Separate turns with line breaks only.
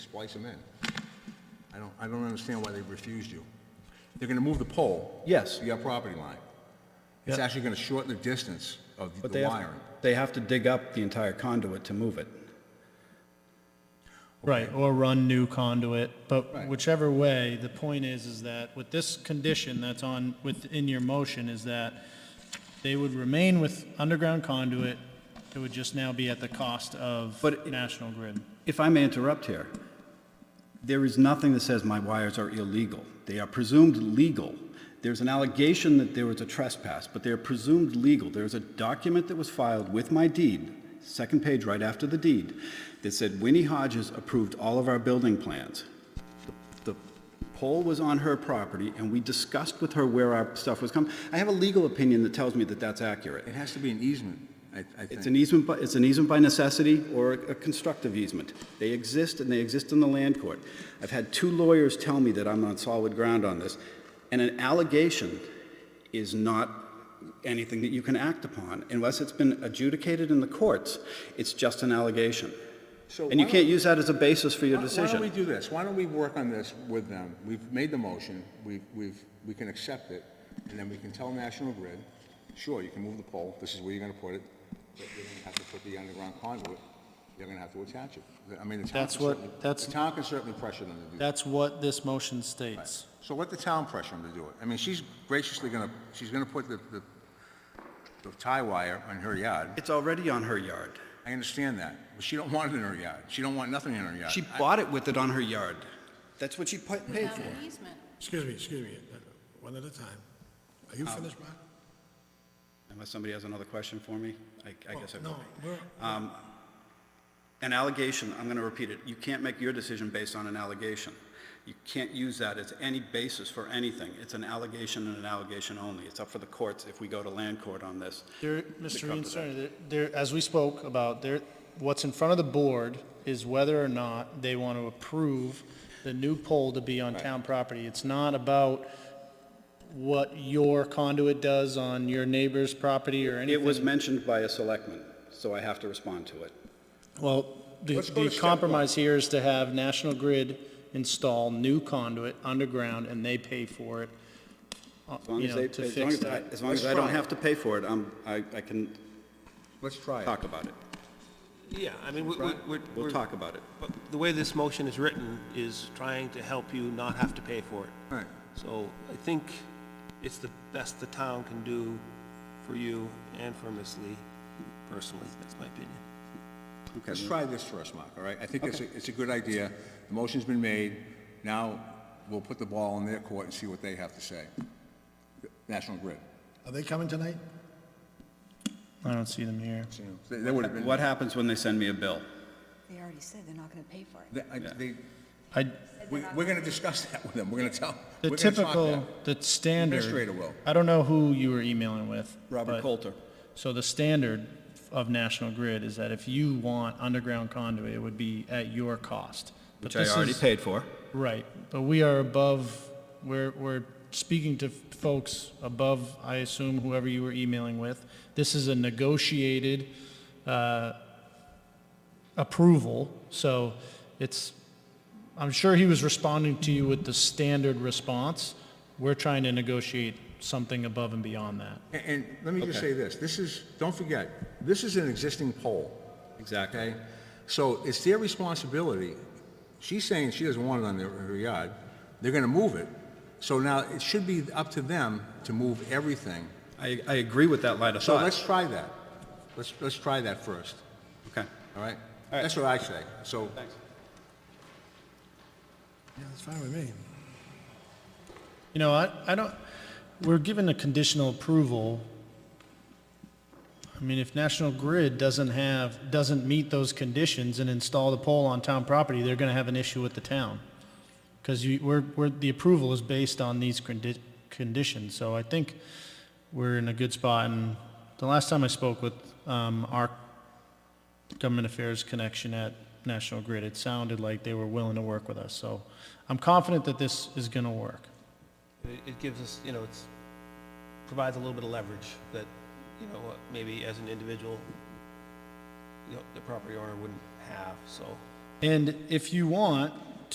splice them in. I don't, I don't understand why they refused you. They're gonna move the pole.
Yes.
To your property line. It's
Yeah.
actually gonna shorten the distance of
But they
the
have,
wiring.
they have to dig up the entire conduit to move it.
Right, or run new conduit, but
Right.
whichever way, the point is, is that with this condition that's on, within your motion, is that they would remain with underground conduit, it would just now be at the cost of
But it-
National Grid.
If I may interrupt here, there is nothing that says my wires are illegal. They are presumed legal. There's an allegation that there was a trespass, but they are presumed legal. There's a document that was filed with my deed, second page right after the deed, that said Winnie Hodges approved all of our building plans. The pole was on her property, and we discussed with her where our stuff was coming. I have a legal opinion that tells me that that's accurate.
It has to be an easement, I, I think.
It's an easement, by- it's an easement by necessity or a constructive easement. They exist, and they exist in the land court. I've had two lawyers tell me that I'm on solid ground on this, and an allegation is not anything that you can act upon unless it's been adjudicated in the courts. It's just an allegation.
So
And you
why
can't
don't-
use that as a basis for your
Why- Why don't we
decision.
do this? Why don't we work on this with them? We've made the motion, we've, we've, we can accept it, and then we can tell National Grid, sure, you can move the pole, this is where you're gonna put it, but you're gonna have to put the underground conduit, you're gonna have to attach it. I mean, the town
That's
can
what-
certainly-
that's-
The town can certainly pressure them to do that.
That's what this motion states.
So let the town pressure them to do it. I mean, she's graciously gonna, she's gonna put the, the, the tie wire on her yard.
It's already on her yard.
I understand that, but she don't want it in her yard. She don't want nothing in her yard.
She
I-
bought it with it on her yard. That's what she pa- paid
Without
for.
an easement.
Excuse me, excuse me, one at a time. Are
Um,
you finished, Mark?
Unless somebody has another question for me, I I guess I
Oh,
will.
No, we're,
An allegation, I'm going to repeat it, you can't make your decision based on an allegation. You can't use that as any basis for anything. It's an allegation and an allegation only. It's up for the courts if we go to land court on this.
There, Mr.
come to
Iancerni, there, there- as we spoke about, there, what's in front of the board is whether or not they want to approve the new pole to be on town property. It's not about what your conduit does on your neighbor's property or
It was
anything.
mentioned by a selectman, so I have to respond to it.
Well, the,
Let's go to
the
step one.
compromise here is to have National Grid install new conduit underground and they pay for it, uh,
As long
you
as they,
know, to
as long
fix
as I,
that.
as long as I don't have to pay for it, I'm, I, I can
Let's try it.
talk about it.
Yeah, I mean, we- we- we're...
We'll
we're-
talk about it.
but The way this motion is written is trying to help you not have to pay for it.
Right.
So I think it's the best the town can do for you and for Ms. Lee personally, that's my opinion.
Okay.
Let's try this first, Mark, all right? I think it's, a- it's a good idea. The motion's been made. Now, we'll put the ball in their court and see what they have to say. National Grid.
are they coming tonight?
I don't see them here.
you know, They, would have been,
What happens when they send me a bill?
They already said they're not going to pay for it.
they- I- they,
I,
we- we're gonna discuss that with them. We're gonna tell,
The
we're gonna talk to
typical,
them.
the standard.
Administrator will.
I don't know who you were emailing with.
Robert
but-
Coulter.
So the standard of National Grid is that if you want underground conduit, it would be at your cost. But
Which I
this
already
is-
paid for.
Right, but we are above, we're, we're speaking to folks above, I assume, whoever you were emailing with. This is a negotiated uh, approval, so it's, I'm sure he was responding to you with the standard response. We're trying to negotiate something above and beyond that.
And, and let me just say this, this is, don't forget, this is an existing poll.
Exactly.
Okay? So it's their responsibility. She's saying she doesn't want it on their, her yard. They're gonna move it. So now it should be up to them to move everything.
I, I agree with that line of
So
thought.
let's try that. Let's, let's try that first,
Okay.
all right? That's what I say, so.
Yeah, that's fine with me.
You know, I, I don't, we're given a conditional approval. I mean, if National Grid doesn't have, doesn't meet those conditions and install the pole on town property, they're gonna have an issue with the town. Because you, we're, we're, the approval is based on these condi- conditions, so I think we're in a good spot. And the last time I spoke with, um, our government affairs connection at National Grid, it sounded like they were willing to work with us, so I'm confident that this is gonna work.
It- It gives us, you know, it's, provides a little bit of leverage that, you know, uh, maybe as an individual, you know, the property owner wouldn't have, so
And if you want,